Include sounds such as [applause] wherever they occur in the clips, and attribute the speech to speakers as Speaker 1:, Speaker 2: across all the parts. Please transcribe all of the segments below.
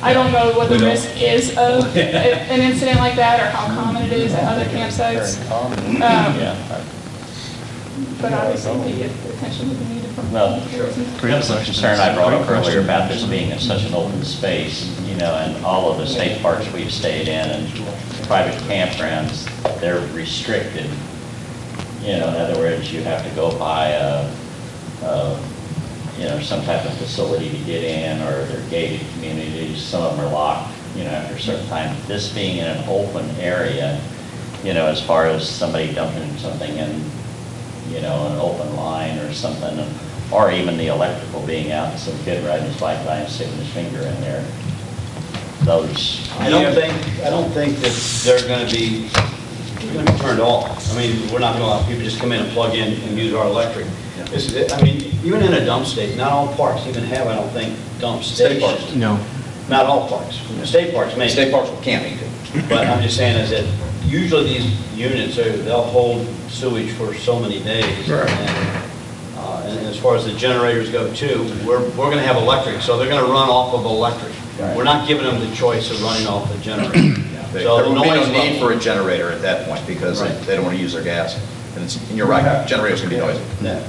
Speaker 1: I don't know what the
Speaker 2: We don't.
Speaker 1: risk is of
Speaker 2: [laughs]
Speaker 1: a- an incident like that or how common it is at other campsites. Um,
Speaker 2: Yeah.
Speaker 1: But obviously, the attention would be needed from
Speaker 2: Well,
Speaker 1: all persons.
Speaker 2: That was a concern I brought up earlier about this being in such an open space, you know, and all of the state parks we've stayed in and private campgrounds, they're restricted. You know, in other words, you have to go by a, a, you know, some type of facility to get in, or they're gated communities, some of them are locked, you know, after a certain time. This being in an open area, you know, as far as somebody dumping something in you know, an open line or something, or even the electrical being out, and some kid riding his bike by and sticking his finger in there. Those,
Speaker 3: I don't think, I don't think that they're gonna be, they're gonna be turned off. I mean, we're not gonna allow people to just come in and plug in and use our electric. This is, I mean, even in a dump state, not all parks even have, I don't think, dump
Speaker 4: State parks.
Speaker 3: stations.
Speaker 5: No.
Speaker 3: Not all parks. State parks may.
Speaker 4: State parks will camp, you could.
Speaker 3: But I'm just saying is that usually these units, are- they'll hold sewage for so many days.
Speaker 5: Right.
Speaker 3: And, uh, And as far as the generators go too, we're, we're gonna have electric, so they're gonna run off of electric.
Speaker 4: Right.
Speaker 3: We're not giving them the choice of running off the generator.
Speaker 4: There
Speaker 3: So
Speaker 4: will
Speaker 3: the
Speaker 4: be
Speaker 3: noise
Speaker 4: no need
Speaker 3: level-
Speaker 4: for a generator at that point because
Speaker 3: Right.
Speaker 4: they don't want to use their gas. And it's, and you're right, generators can be noisy.
Speaker 3: No.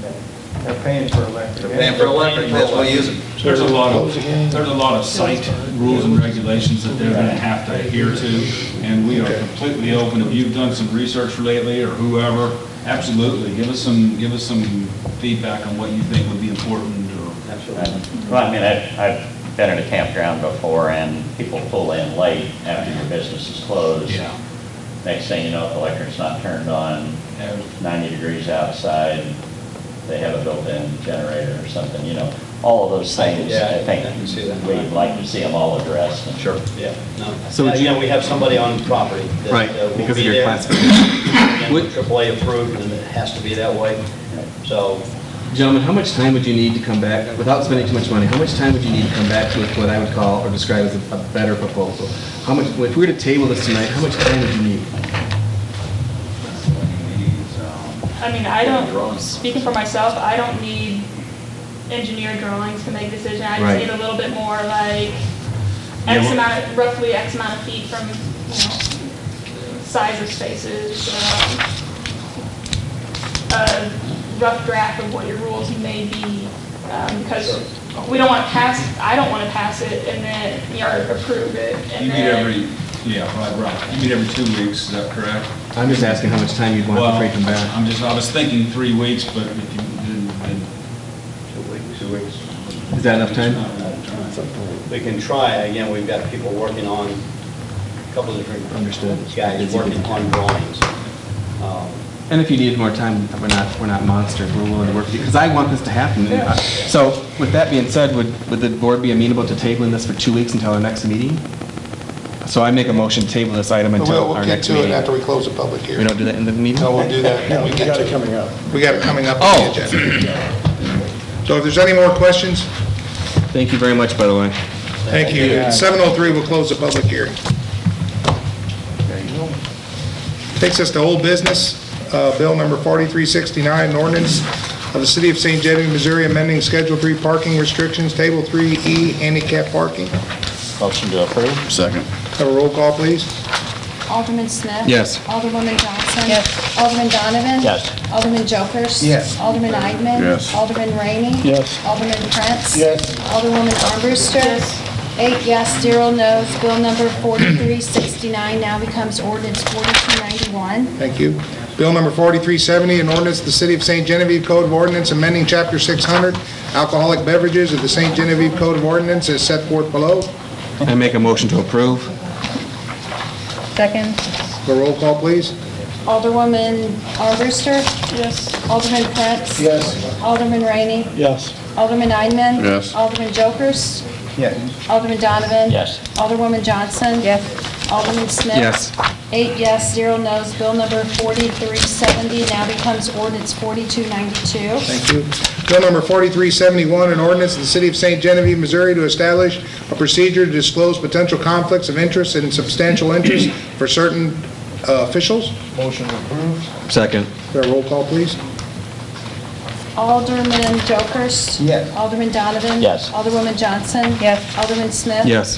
Speaker 6: They're paying for electric.
Speaker 4: They're paying for electric, that's why you use it.
Speaker 7: There's a lot of, there's a lot of site rules and regulations that they're gonna have to adhere to, and we are completely open. If you've done some research lately, or whoever, absolutely, give us some, give us some feedback on what you think would be important, or
Speaker 2: well, I mean, I've, I've been in a campground before and people pull in late after your business is closed.
Speaker 7: Yeah.
Speaker 2: Next thing you know, if the electric's not turned on,
Speaker 7: Yeah.
Speaker 2: 90 degrees outside, they have a built-in generator or something, you know. All of those things,
Speaker 3: Yeah,
Speaker 2: I
Speaker 3: I
Speaker 2: think,
Speaker 3: can see that.
Speaker 2: we'd like to see them all addressed. and-
Speaker 4: Sure.
Speaker 3: Yeah, no.
Speaker 5: So
Speaker 3: Yeah,
Speaker 5: would
Speaker 3: You
Speaker 5: you-
Speaker 3: know, we have somebody on property that
Speaker 5: Right,
Speaker 3: uh, will
Speaker 5: because
Speaker 3: be
Speaker 5: of your
Speaker 3: there.
Speaker 5: classification.
Speaker 3: And
Speaker 5: Would-
Speaker 3: AAA approved, and it has to be that way. So
Speaker 5: Gentlemen, how much time would you need to come back, without spending too much money, how much time would you need to come back with what I would call or describe as a- a better proposal? How much, if we were to table this tonight, how much time would you need?
Speaker 1: I mean, I don't, speaking for myself, I don't need engineer drawings to make decisions. I just
Speaker 5: Right.
Speaker 1: need a little bit more like
Speaker 7: Yeah,
Speaker 1: X
Speaker 7: well-
Speaker 1: amount, of- roughly X amount of feet from, you know, size of spaces, um, a rough draft of what your rules may be, um, because we don't want to pass, I don't want to pass it and then, you know, approve it
Speaker 7: you
Speaker 1: and
Speaker 7: meet
Speaker 1: then.
Speaker 7: every, yeah, right, right. You meet every two weeks, is that correct?
Speaker 5: I'm just asking how much time you'd want before you come
Speaker 7: Well,
Speaker 5: back.
Speaker 7: I'm just, I was thinking three weeks, but if you didn't, then.
Speaker 5: Is that enough time?
Speaker 3: we can try, again, we've got people working on, a couple of different
Speaker 5: Understood.
Speaker 3: guys working on drawings. Um,
Speaker 5: And if you needed more time, we're not, we're not monsters, we're willing to work with you, because I want this to happen. And I- So with that being said, would, would the board be amenable to tabling this for two weeks until our next meeting? So I make a motion to table this item
Speaker 8: We'll,
Speaker 5: until
Speaker 8: we'll
Speaker 5: our
Speaker 8: get
Speaker 5: next
Speaker 8: to
Speaker 5: meeting.
Speaker 8: it after we close the public
Speaker 5: We
Speaker 8: hearing.
Speaker 5: don't do that in the meeting?
Speaker 8: No, we'll do that when we get to it.
Speaker 6: coming up.
Speaker 8: We got it coming up
Speaker 5: Oh.
Speaker 8: on the agenda. So if there's any more questions,
Speaker 5: Thank you very much, by the way.
Speaker 8: thank you. At 7:03, we'll close the public hearing. Takes us to old business, uh, bill number 4369, an ordinance of the City of St. Genevieve, Missouri, amending Schedule 3 parking restrictions, Table 3E, handicap parking.
Speaker 2: Motion to approve?
Speaker 4: Second.
Speaker 8: Have a roll call, please.
Speaker 9: Alderman Smith.
Speaker 5: Yes.
Speaker 9: Alderwoman Johnson. Yes. Alderman Donovan.
Speaker 2: Yes.
Speaker 9: Alderman Jokers.
Speaker 8: Yes.
Speaker 9: Alderman Eidman.
Speaker 4: Yes.
Speaker 9: Alderman Rainey.
Speaker 6: Yes.
Speaker 9: Alderman Prince.
Speaker 6: Yes.
Speaker 9: Alderwoman Armbruster.
Speaker 1: Yes.
Speaker 9: Eight yes, zero no's. Bill number 4369 now becomes ordinance 4291.
Speaker 8: Thank you. Bill number 4370, an ordinance, of the City of St. Genevieve Code of Ordinance, amending Chapter 600, alcoholic beverages of the St. Genevieve Code of Ordinance as set forth below.
Speaker 5: I make a motion to approve.
Speaker 10: Second,
Speaker 8: The roll call, please.
Speaker 9: Alderwoman Armbruster.
Speaker 1: Yes.
Speaker 9: Alderman Prince.
Speaker 6: Yes.
Speaker 9: Alderman Rainey.
Speaker 6: Yes.
Speaker 9: Alderman Eidman.
Speaker 4: Yes.
Speaker 9: Alderman Jokers.
Speaker 6: Yes.
Speaker 9: Alderman Donovan.
Speaker 2: Yes.
Speaker 9: Alderwoman Johnson.
Speaker 10: yes,
Speaker 9: Alderman Smith?
Speaker 5: Yes.
Speaker 9: Eight yes, zero no's. Bill number 4370 now becomes ordinance 4292.
Speaker 8: Thank you. Bill number 4371, an ordinance of the City of St. Genevieve, Missouri to establish a procedure to disclose potential conflicts of interest and substantial interest for certain uh, officials.
Speaker 6: Motion approved.
Speaker 5: Second.
Speaker 8: The roll call, please.
Speaker 9: Alderman Jokers?
Speaker 6: Yes.
Speaker 9: Alderman Donovan?
Speaker 2: Yes.
Speaker 9: Alderwoman Johnson?
Speaker 10: Yes.
Speaker 9: Alderman Smith?
Speaker 5: Yes.